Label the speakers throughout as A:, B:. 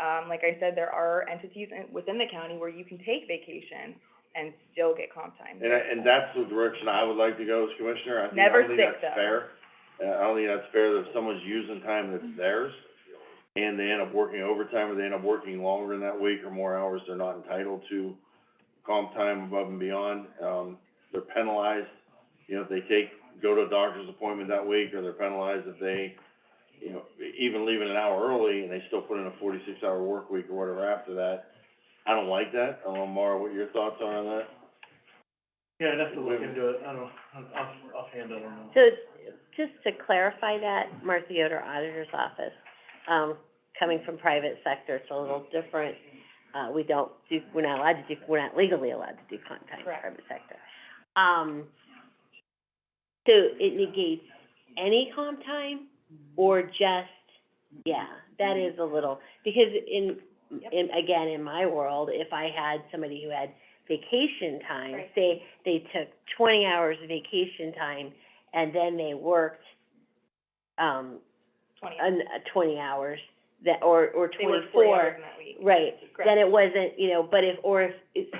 A: Um, like I said, there are entities in, within the county where you can take vacation and still get comp time.
B: And I, and that's the direction I would like to go as commissioner, I think, I
A: Never
B: don't think
A: sick,
B: that's
A: though.
B: fair. Uh, I don't think that's fair that if someone's using time
A: Mm-hmm.
B: that's theirs, and they end up working overtime, or they end up working longer in that week or more hours, they're not entitled to comp time above and beyond, um, they're penalized, you know, if they take, go to a doctor's appointment that week, or they're penalized if they, you know, even leaving an hour early, and they still put in a forty-six hour work week or whatever after that. I don't like that, I don't know, Mara, what your thoughts are on that?
C: Yeah, I'd have to look into it, I don't, I'm- off, offhand, I don't know.
D: So, just to clarify that, Martha Yoder Auditor's Office, um, coming from private sector, it's a little different. Uh, we don't do, we're not allowed to do, we're not legally allowed to do comp time in
A: Correct.
D: private sector. Um, so it negates any comp time or just, yeah, that is a little, because in,
A: Yep.
D: in, again, in my world, if I had somebody who had vacation time,
A: Right.
D: say, they took twenty hours of vacation time and then they worked, um,
A: Twenty,
D: an, uh, twenty hours that, or, or
A: they
D: twenty-four.
A: work forty hours in that week.
D: Right, then
A: Correct.
D: it wasn't, you know, but if, or if, it's,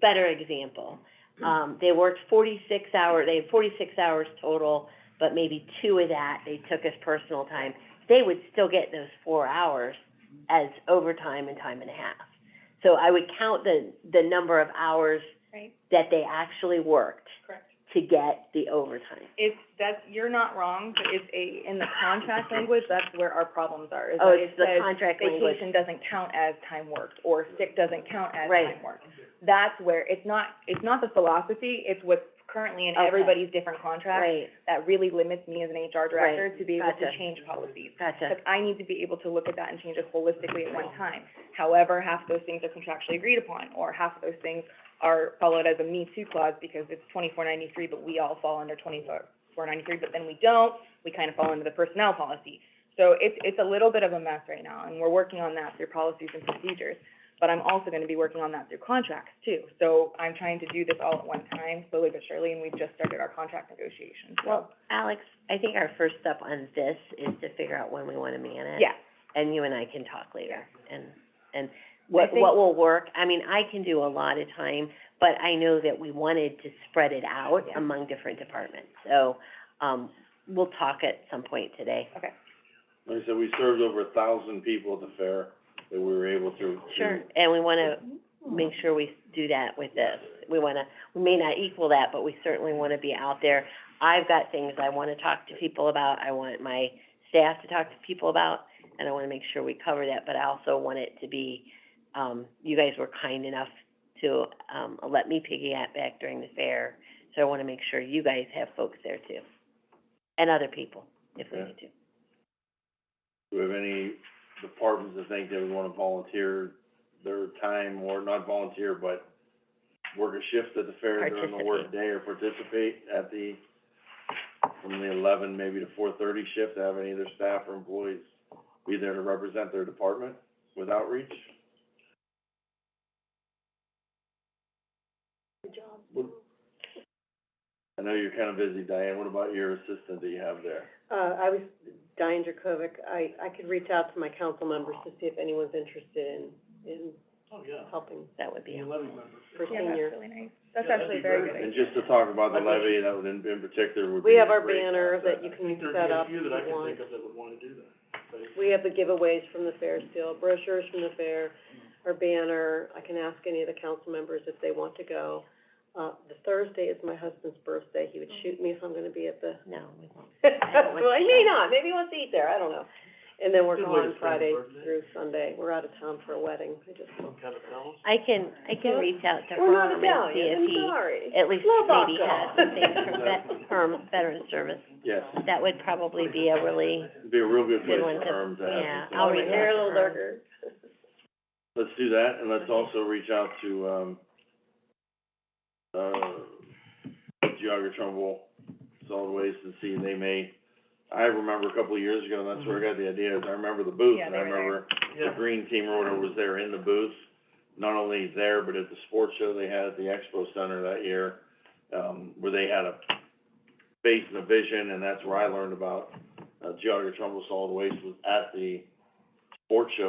D: better example,
A: Mm-hmm.
D: um, they worked forty-six hour, they had forty-six hours total, but maybe two of that they took as personal time, they would still get those four hours as overtime and time and a half. So I would count the, the number of hours
A: Right.
D: that they actually worked
A: Correct.
D: to get the overtime.
A: It's, that's, you're not wrong, but it's a, in the contract language, that's where our problems are, is that
D: Oh,
A: it
D: it's the
A: says
D: contract language.
A: vacation doesn't count as time worked, or sick doesn't count as
D: Right.
A: time worked. That's where, it's not, it's not the philosophy, it's what's currently in
D: Okay.
A: everybody's different contracts
D: Right,
A: that really limits me as an HR director
D: Right.
A: to be able to
D: Gotcha.
A: change policies.
D: gotcha.
A: Like, I need to be able to look at that and change it holistically at one time. However, half of those things are contractually agreed upon, or half of those things are followed as a me too clause because it's twenty-four ninety-three, but we all fall under twenty-four ninety-three, but then we don't, we kind of fall under the personnel policy. So it's, it's a little bit of a mess right now, and we're working on that through policies and procedures. But I'm also gonna be working on that through contracts too. So I'm trying to do this all at one time, slowly but surely, and we've just started our contract negotiations, so.
D: Well, Alex, I think our first step on this is to figure out when we wanna man it.
A: Yeah,
D: And you and I can talk later, and, and
A: I
D: what,
A: think-
D: what will work, I mean, I can do a lot of time, but I know that we wanted to spread it out
A: Yeah.
D: among different departments, so, um, we'll talk at some point today.
A: okay.
B: Like I said, we served over a thousand people at the fair that we were able to, to.
D: Mm-hmm. And we wanna make sure we do that with this, we wanna, we may not equal that, but we certainly wanna be out there. I've got things I wanna talk to people about, I want my staff to talk to people about, and I wanna make sure we cover that, but I also want it to be, um, you guys were kind enough to, um, let me piggyback back during the fair, so I wanna make sure you guys have folks there too. And other people, if we
B: Yeah.
D: need to.
B: Do we have any departments that think they would wanna volunteer their time or not volunteer, but work a shift at the fair during the
D: Participate.
B: workday or participate at the, from the eleven maybe to four thirty shift, to have any of their staff or employees be there to represent their department with outreach? Good job. I know you're kinda busy, Diane, what about your assistant that you have there?
E: Uh, I was Diane Dracovic. I, I could reach out to my council members to see if anyone's interested in, in
C: Oh, yeah,
E: helping
D: That would be
C: the
D: helpful.
C: levy member.
E: for
A: Yeah, that's
E: seniors.
A: really nice. That's
C: Yeah, that'd
A: actually a
C: be
A: very
C: great.
A: good
B: And
A: idea.
B: just to talk about the levy, that would in, in particular would be.
E: We have
B: a
E: our
B: great
E: banner that
B: asset.
E: you
C: I
E: can
C: think there'd be
E: set
C: a
E: up
C: few
E: if
C: that I
E: you
C: could
E: want.
C: think of that would wanna do that, but
E: We have the giveaways from the fair still, brochures from the fair, our banner. I can ask any of the council members if they want to go. Uh, the Thursday is my husband's birthday. He would shoot me if I'm gonna be at the,
D: No, we won't. don't want
E: well, I
D: to
E: may
D: go.
E: not. Maybe he wants to eat there. I don't know. And then we're
C: Good way to
E: gone
C: spend a
E: Friday
C: birthday.
E: through Sunday. We're out of town for a wedding. I just
C: some kind of balance.
D: I can, I can
E: Well,
D: reach out to
E: We're not
D: Herm and see
E: Italian,
D: if
E: I'm
D: he,
E: sorry.
D: at least maybe has something from
B: Exactly.
D: vet, from veteran service.
B: Yes,
D: That would probably be a really,
B: it'd be a real good
D: Good
B: place
D: one
B: for
D: to-
B: firms to have.
D: yeah,
B: this.
D: I'll reach out.
E: Marilyn Berger.
B: Let's do that, and let's also reach out to, um, uh, Geogga Trumbull, Solid Waste, and see if they may, I remember a couple of years ago, and that's where I got the idea, is I remember the booth,
A: Yeah,
B: and
A: they
B: I
A: were there.
B: remember the
C: Yeah,
B: green team or whatever was there in the booth, not only there, but at the sports show they had at the Expo Center that year, um, where they had a face and a vision, and that's where I learned about, uh, Geogga Trumbull Solid Waste was at the sports show